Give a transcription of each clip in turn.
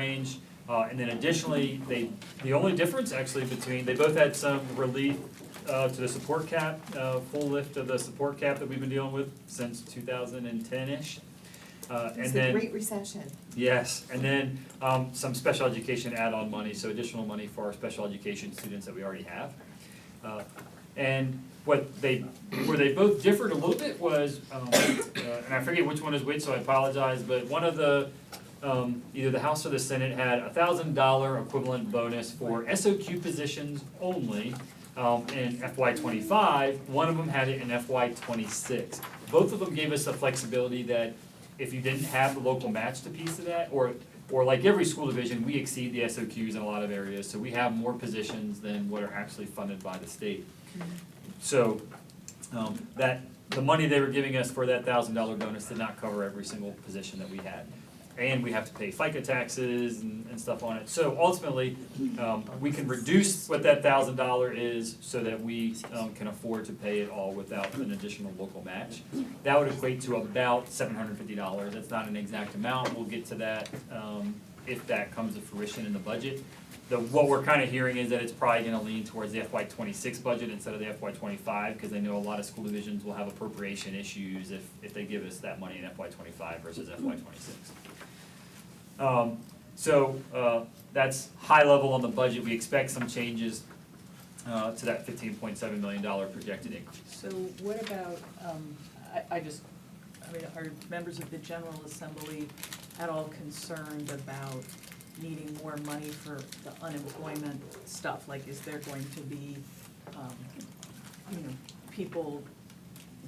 range. Uh, and then additionally, they, the only difference actually between, they both had some relief, uh, to the support cap, uh, full lift of the support cap that we've been dealing with since two thousand and ten-ish. Uh, and It's then. the Great Recession. Yes, and then um some special education add-on money, so additional money for our special education students that we already have. Uh and what they, where they both differed a little bit was um uh and I forget which one is which, so I apologize, but one of the um either the House or the Senate had a thousand dollar equivalent bonus for SOQ positions only um in FY twenty-five, one of them had it in FY twenty-six. Both of them gave us the flexibility that if you didn't have the local match to piece of that, or, or like every school division, we exceed the SOQs in a lot of areas, so we have more positions than what are actually funded by the state. So, um, that, the money they were giving us for that thousand dollar bonus did not cover every single position that we had. And we have to pay FICA taxes and, and stuff on it, so ultimately, um, we can reduce what that thousand dollar is so that we, um, can afford to pay it all without an additional local match. That would equate to about seven hundred fifty dollars, that's not an exact amount, we'll get to that, um, if that comes to fruition in the budget. The, what we're kinda hearing is that it's probably gonna lean towards the FY twenty-six budget instead of the FY twenty-five, cause I know a lot of school divisions will have appropriation issues if, if they give us that money in FY twenty-five versus FY twenty-six. Um, so, uh, that's high level on the budget, we expect some changes, uh, to that fifteen point seven million dollar projected increase. So what about, um, I, I just, I mean, are members of the General Assembly at all concerned about needing more money for the unemployment stuff? Like, is there going to be, um, you know, people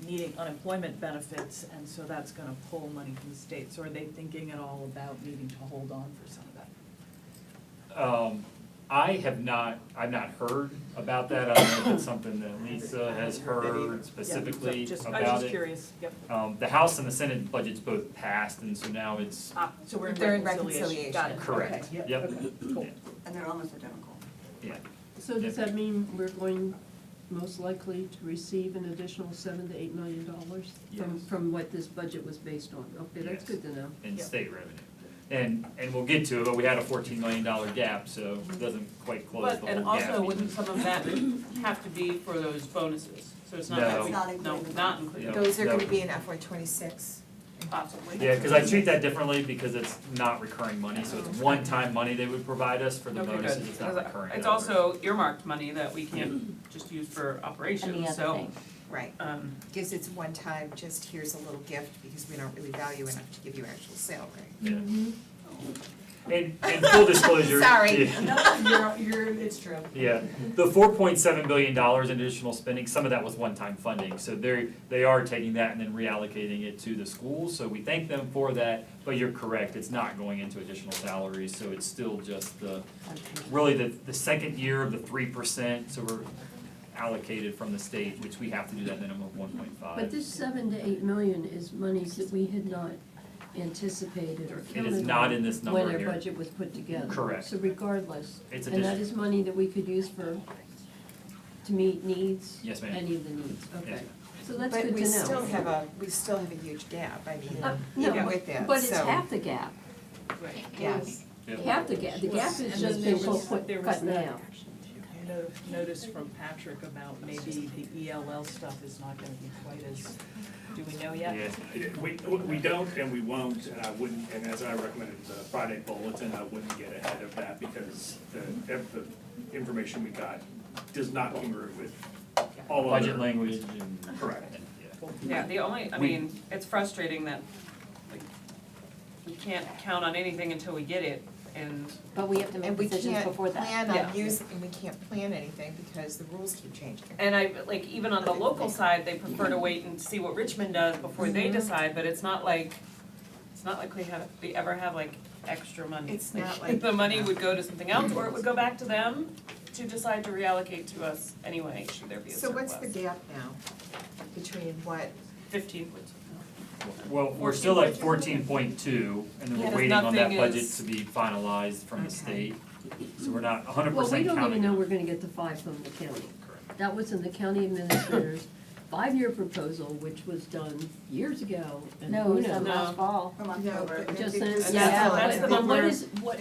needing unemployment benefits, and so that's gonna pull money from the states? Or are they thinking at all about needing to hold on for some of that? Um, I have not, I've not heard about that, I don't know if it's something that Lisa has heard Yeah, specifically just- about it. I was just curious, yep, Um, the House and the Senate budgets both passed, and so now it's, Ah, so we're in They're in reconciliation, got it, okay, Correct. yep, Yep. okay, cool. And they're almost identical. yeah, So does that mean we're going most likely to receive an additional seven to eight million dollars from, Yes. from what this budget was based on? Okay, that's Yes. good to know. in Yep. state revenue. And, and we'll get to it, but we had a fourteen million dollar gap, so it doesn't quite close the But, whole gap. and also, wouldn't because- some of that have to be for those bonuses? So it's not No. that It's we, not no, included. not included, No, Those are gonna no. be in FY twenty-six. possibly. Yeah, cause I treat that differently because it's not recurring money, so it's one-time money they would provide us for the Oh. Okay, good. bonuses, it's not recurring. It's also earmarked money that we can't just use for operations, so, Right, um, gives it's one time, just here's a little gift because we don't really value enough to give you actual salary. Yeah. And, and full disclosure. Mm-hmm. Sorry. yeah. you're, you're, it's true. Yeah, the four point seven billion dollars in additional spending, some of that was one-time funding, so they're, they are taking that and then reallocating it to the schools, so we thank them for that, but you're correct, it's not going into additional salaries, so it's still just the, really the, the second year of the three percent, so we're allocated from the state, which we have to do that minimum of one point five. But this seven to eight million is monies that we had not anticipated or It counted is not on in this number When our here, budget was put together. Correct. So regardless, it's and that additional, is money that we could use for, to meet needs, yes, ma'am. any of the needs, okay. ma'am. So that's good to But know. we still have a, we still have a huge gap, I mean, Uh, even no, with that, so. But it's half the gap. Right. Yes. Yep. Half the gap, the gap And then has just there been was- cut there was cut that now. no- Notice from Patrick about maybe the ELL stuff is not gonna be quite as, do we know yet? Yeah. We, we don't and we won't, and I wouldn't, and as I recommended in the Friday bulletin, I wouldn't get ahead of that because the, if the information we got does not congruent with all other. Budget language and. Correct. Yeah. yeah, the only, I We- mean, it's frustrating that, like, we can't count on anything until we get it, and But we have to make And we decisions can't before that. plan on Yeah. use, and we can't plan anything because the rules keep changing. And I, like, even on the local side, they prefer to wait and see what Richmond does before Mm-hmm. they decide, but it's not like, it's not like we have, we ever have like extra money. It's not like- The money would go to something else, or it would go back to them to decide to reallocate to us anyway, should there be a So surplus. what's the gap now between what, Fifteen point Well, we're still at fourteen point two, and Yeah, then we're there's waiting on that nothing budget is- to be finalized from the Okay. state, so we're not hundred Well, we percent counting. don't even it. know we're gonna get the five from the county. That was in the county administrator's five-year proposal, which was done years ago, and No, who it's knows? last fall. no, but Just since, it's yeah, yeah, not- that's the but but what number. is, what,